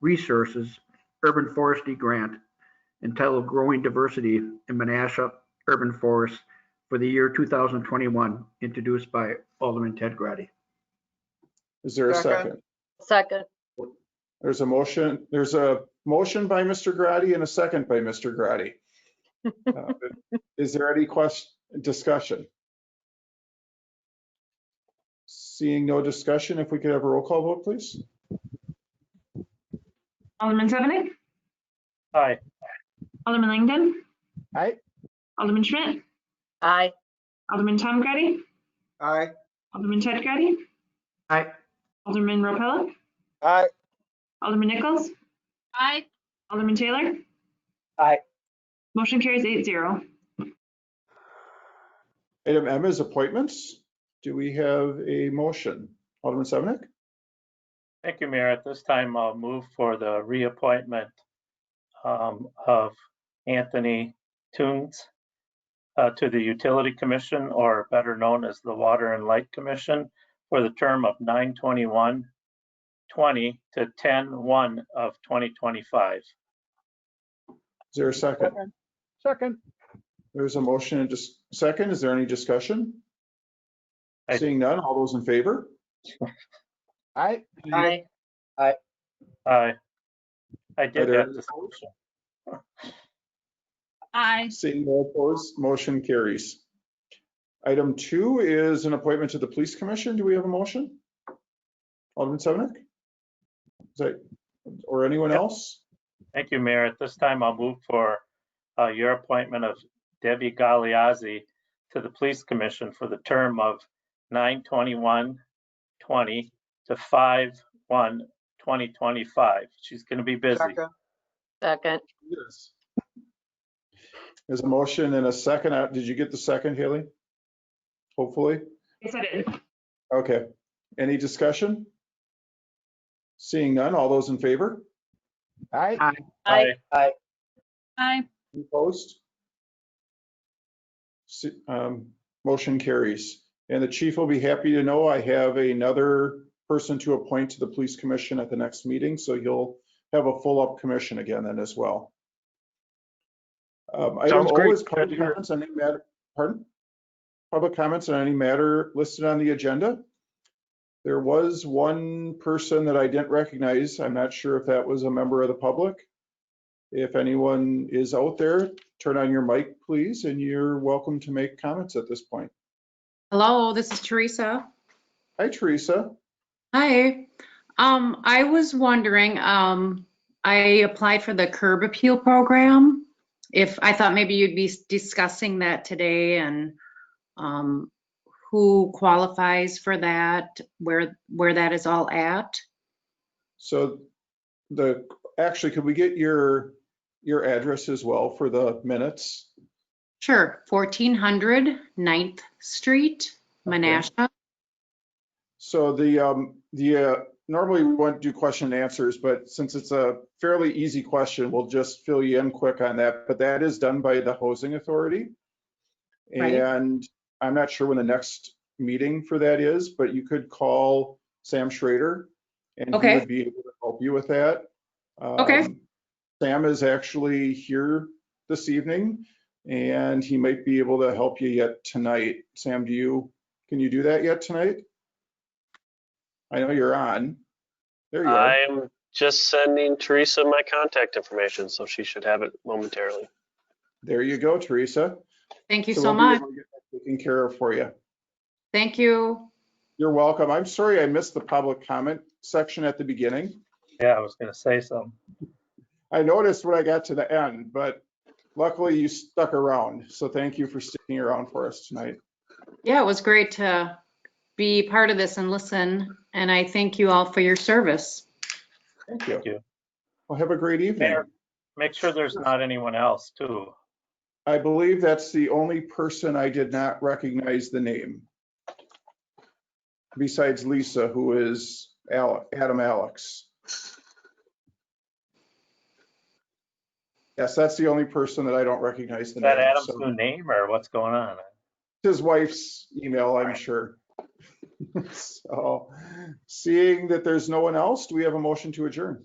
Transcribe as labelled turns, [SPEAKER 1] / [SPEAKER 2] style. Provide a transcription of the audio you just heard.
[SPEAKER 1] Resources Urban Forestry Grant entitled Growing Diversity in Menasha Urban Forests for the year 2021, introduced by Alderman Ted Grady.
[SPEAKER 2] Is there a
[SPEAKER 3] Second.
[SPEAKER 2] second?
[SPEAKER 4] Second,
[SPEAKER 2] There's a motion, there's a motion by Mr. Grady and a second by Mr. Grady. Uh, Is there any question, discussion? Seeing no discussion, if we could have a roll call vote, please?
[SPEAKER 5] Alderman Sevenick.
[SPEAKER 6] Aye.
[SPEAKER 5] Alderman Langdon.
[SPEAKER 6] Aye.
[SPEAKER 5] Alderman Schmidt.
[SPEAKER 4] aye.
[SPEAKER 5] Alderman Tom Grady.
[SPEAKER 3] Aye.
[SPEAKER 5] Alderman Ted Grady.
[SPEAKER 1] Aye.
[SPEAKER 5] Alderman Repella.
[SPEAKER 3] Aye.
[SPEAKER 5] Alderman Nichols.
[SPEAKER 4] Aye.
[SPEAKER 5] Alderman Taylor.
[SPEAKER 6] Aye.
[SPEAKER 5] Motion carries eight zero.
[SPEAKER 2] Item M is appointments. Do we have a motion? Alderman Sevenick?
[SPEAKER 6] Thank you, Mayor. At this time, I'll move for the reappointment um, of Anthony Toombs uh, to the Utility Commission, or better known as the Water and Light Commission, for the term of 9/21/20 to 10/1 of 2025.
[SPEAKER 2] Is there a second?
[SPEAKER 6] Second.
[SPEAKER 2] There's a motion and just second. Is there any discussion?
[SPEAKER 6] Aye.
[SPEAKER 2] Seeing none, all those in favor?
[SPEAKER 6] Aye.
[SPEAKER 4] Aye.
[SPEAKER 6] Aye. I
[SPEAKER 2] Are
[SPEAKER 6] did
[SPEAKER 2] there
[SPEAKER 6] that.
[SPEAKER 2] any opposed?
[SPEAKER 6] discussion.
[SPEAKER 4] Aye.
[SPEAKER 2] Seeing no opposed, motion carries. Item two is an appointment to the Police Commission. Do we have a motion? Alderman Sevenick? Is that, or anyone
[SPEAKER 6] Yep.
[SPEAKER 2] else?
[SPEAKER 6] Thank you, Mayor. At this time, I'll move for uh, your appointment of Debbie Galeazzi to the Police Commission for the term of 9/21/20 to 5/1/2025. She's going to be busy.
[SPEAKER 3] Second.
[SPEAKER 4] Second,
[SPEAKER 2] Yes. There's a motion and a second. Uh, Did you get the second, Haley? Hopefully.
[SPEAKER 5] Yes, I did.
[SPEAKER 2] Okay. Any discussion? Seeing none, all those in favor?
[SPEAKER 6] Aye.
[SPEAKER 4] aye.
[SPEAKER 2] Opposed? Si- um, Motion carries. And the chief will be happy to know I have another person to appoint to the police commission at the next meeting, so you'll have a full-up commission again then as well. Um, Item
[SPEAKER 7] Sounds
[SPEAKER 2] O
[SPEAKER 7] great.
[SPEAKER 2] is
[SPEAKER 7] Glad to
[SPEAKER 2] public
[SPEAKER 7] hear it.
[SPEAKER 2] comments on any matter, pardon? Public comments on any matter listed on the agenda. There was one person that I didn't recognize. I'm not sure if that was a member of the public. If anyone is out there, turn on your mic, please, and you're welcome to make comments at this point.
[SPEAKER 8] Hello, this is Teresa.
[SPEAKER 2] Hi, Teresa.
[SPEAKER 8] Hi. Um, I was wondering, um, I applied for the curb appeal program. If, I thought maybe you'd be discussing that today and, um, who qualifies for that, where, where that is all at.
[SPEAKER 2] So the, actually, could we get your, your address as well for the minutes?
[SPEAKER 8] Sure, 1400 Ninth Street,
[SPEAKER 2] Okay.
[SPEAKER 8] Menasha.
[SPEAKER 2] So the, um, the, uh, normally we want to do question and answers, but since it's a fairly easy question, we'll just fill you in quick on that. But that is done by the housing authority.
[SPEAKER 8] Right.
[SPEAKER 2] And I'm not sure when the next meeting for that is, but you could call Sam Schrader. And he
[SPEAKER 8] Okay.
[SPEAKER 2] would be able to help you with that.
[SPEAKER 8] Okay.
[SPEAKER 2] Um, Sam is actually here this evening and he might be able to help you yet tonight. Sam, do you, can you do that yet tonight? I know you're on. There you are.
[SPEAKER 7] I'm just sending Teresa my contact information, so she should have it momentarily.
[SPEAKER 2] There you go, Teresa.
[SPEAKER 8] Thank you
[SPEAKER 2] So
[SPEAKER 8] so
[SPEAKER 2] we'll be
[SPEAKER 8] much.
[SPEAKER 2] able to get that Taken care of for you.
[SPEAKER 8] Thank you.
[SPEAKER 2] You're welcome. I'm sorry I missed the public comment section at the beginning.
[SPEAKER 6] Yeah, I was going to say something.
[SPEAKER 2] I noticed when I got to the end, but luckily you stuck around. So thank you for sticking around for us tonight.
[SPEAKER 8] Yeah, it was great to be part of this and listen, and I thank you all for your service.
[SPEAKER 2] Thank
[SPEAKER 6] Thank
[SPEAKER 2] you.
[SPEAKER 6] you.
[SPEAKER 2] Well, have a great evening.
[SPEAKER 6] Mayor, make sure there's not anyone else, too.
[SPEAKER 2] I believe that's the only person I did not recognize the name. Besides Lisa, who is Ale- Adam Alex. Yes, that's the only person that I don't recognize the name.
[SPEAKER 6] Is that Adam's
[SPEAKER 2] so-
[SPEAKER 6] new name, or what's going on?
[SPEAKER 2] his wife's email, I'm sure. So, seeing that there's no one else, do we have a motion to adjourn?